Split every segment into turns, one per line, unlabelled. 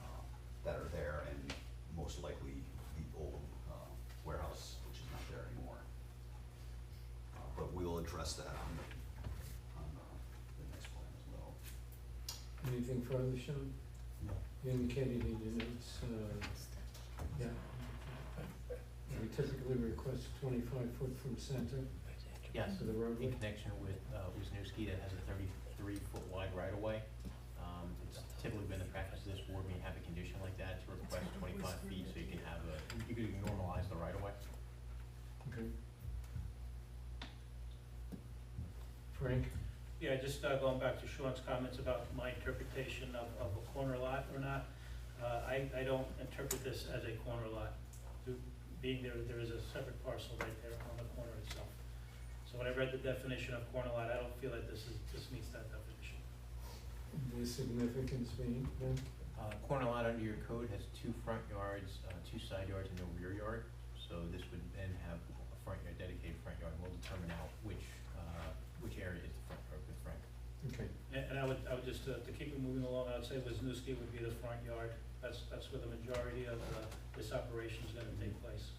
uh, that are there and most likely the old uh, warehouse, which is not there anymore. Uh, But we'll address that on the, on uh, the next plan as well.
Anything further, Sean? You indicated in your notes, uh, yeah. We typically request twenty-five foot from center
Yes,
to the
in
roadway.
connection with uh, Wisniewski that has a thirty-three foot wide right of way. Um, It's typically been the practice of this board when you have a condition like that to request twenty-five feet so you can have a, you can normalize the right of way.
Okay. Frank,
Yeah, just uh, going back to Sean's comments about my interpretation of, of a corner lot or not, uh, I, I don't interpret this as a corner lot. Do- Being there, there is a separate parcel right there on the corner itself. So when I read the definition of corner lot, I don't feel that this is, this meets that definition.
the significance being, then,
Uh, Corner lot under your code has two front yards, uh, two side yards, and no rear yard. So this would then have a front yard, dedicated front yard. We'll determine out which, uh, which area is the front yard with Frank.
okay,
And, and I would, I would just, uh, to keep it moving along, I would say Wisniewski would be the front yard. That's, that's where the majority of uh, this operation is gonna take place.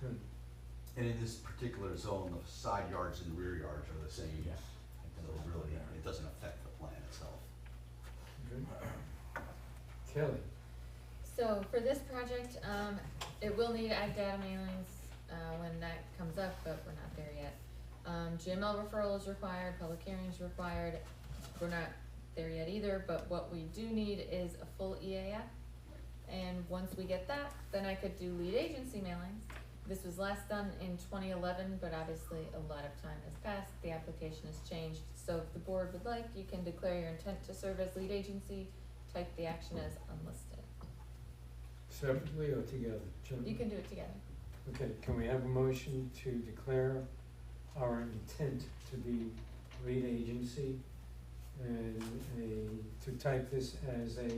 good.
And in this particular zone, the side yards and rear yards are the same.
Yeah.
So really, it doesn't affect the plan itself.
Good. Kelly,
So for this project, um, it will need ag data mailings, uh, when that comes up, but we're not there yet. Um, GML referral is required, public hearings required, we're not there yet either, but what we do need is a full EAF. And once we get that, then I could do lead agency mailings. This was last done in twenty eleven, but obviously a lot of time has passed, the application has changed. So if the board would like, you can declare your intent to serve as lead agency, type the action as unlisted.
separately or together? Jim?
You can do it together.
Okay, can we have a motion to declare our intent to be lead agency and a, to type this as a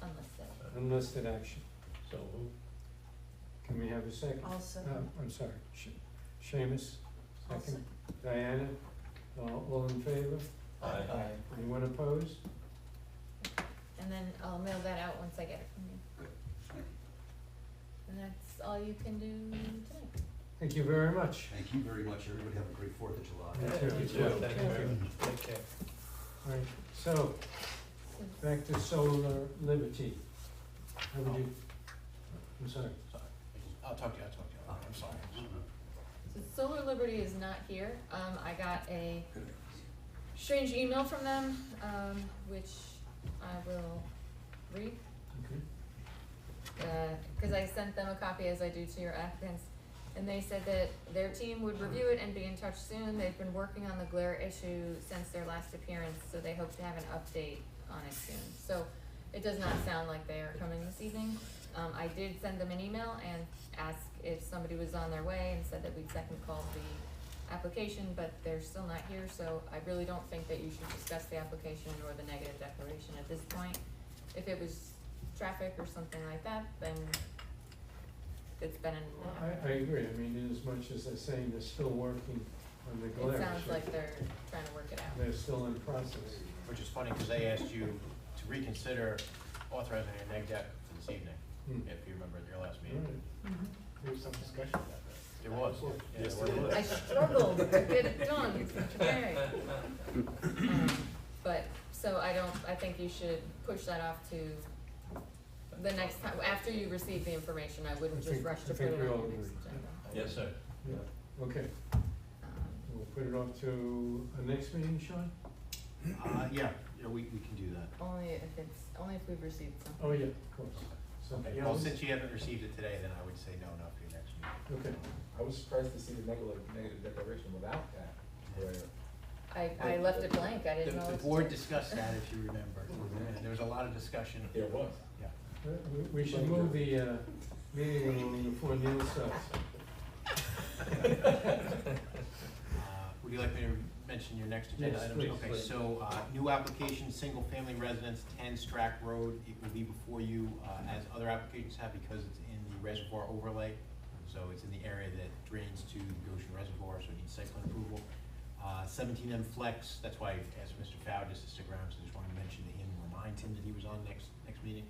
Unlisted.
unlisted action?
So
Can we have a second?
Also,
No, I'm sorry, Sh- Seamus, second. Diana, all- all in favor? Anyone opposed?
And then I'll mail that out once I get it from you. And that's all you can do tonight.
Thank you very much.
Thank you very much. Everybody have a great Fourth of July.
Thank you.
Thank you very much.
All right, so
So-
back to solar liberty. How would you, I'm sorry.
I'll talk to you, I'll talk to you. I'm sorry.
So Solar Liberty is not here. Um, I got a strange email from them, um, which I will read.
Okay.
because I sent them a copy as I do to your applicants. And they said that their team would review it and be in touch soon. They've been working on the glare issue since their last appearance, so they hope to have an update on it soon. So it does not sound like they are coming this evening. Um, I did send them an email and ask if somebody was on their way and said that we'd second call the application, but they're still not here, so I really don't think that you should discuss the application or the negative declaration at this point. If it was traffic or something like that, then it's been an.
I, I agree, I mean, as much as they're saying they're still working on the glare
It sounds
issue,
like they're trying to work it out.
they're still in process.
Which is funny, because they asked you to reconsider authorizing a neg deck for this evening,
Hmm.
if you remember at your last
All
meeting.
right.
There was some discussion about that.
There was. Yeah,
Yes,
there
there
was.
I struggled to get it done today. Um, But, so I don't, I think you should push that off to the next time, after you receive the information, I
I
wouldn't just
think-
rush
I
to put
think
it on
we
your
all
next
agree.
agenda.
Yes, sir.
Yeah, okay,
Um,
we'll put it off to a next meeting, Sean?
Uh, yeah, yeah, we, we can do that.
Only if it's, only if we've received something.
Oh, yeah, of course. Something
Okay, Well,
else?
since you haven't received it today, then I would say no, not for your next meeting.
Okay.
I was surprised to see the negative, negative declaration without that, where
I, I left it blank, I didn't know
The,
what
the
to
board
do.
discussed that, if you remember. And There was a lot of discussion.
there was.
Yeah.
Uh, we- We should move the uh, meeting along before Neil starts.
Uh, Would you like me to mention your next agenda
Yes,
items?
please.
Okay, so, uh, new application, single-family residence, ten Strack Road, it will be before you, uh, as other applications have, because it's in the reservoir overlay. So it's in the area that drains to the Goshen Reservoir, so it needs site plan approval. Uh, seventeen M Flex, that's why I asked Mr. Fowle just to stick around, so just wanted to mention to him, remind him that he was on next, next meeting.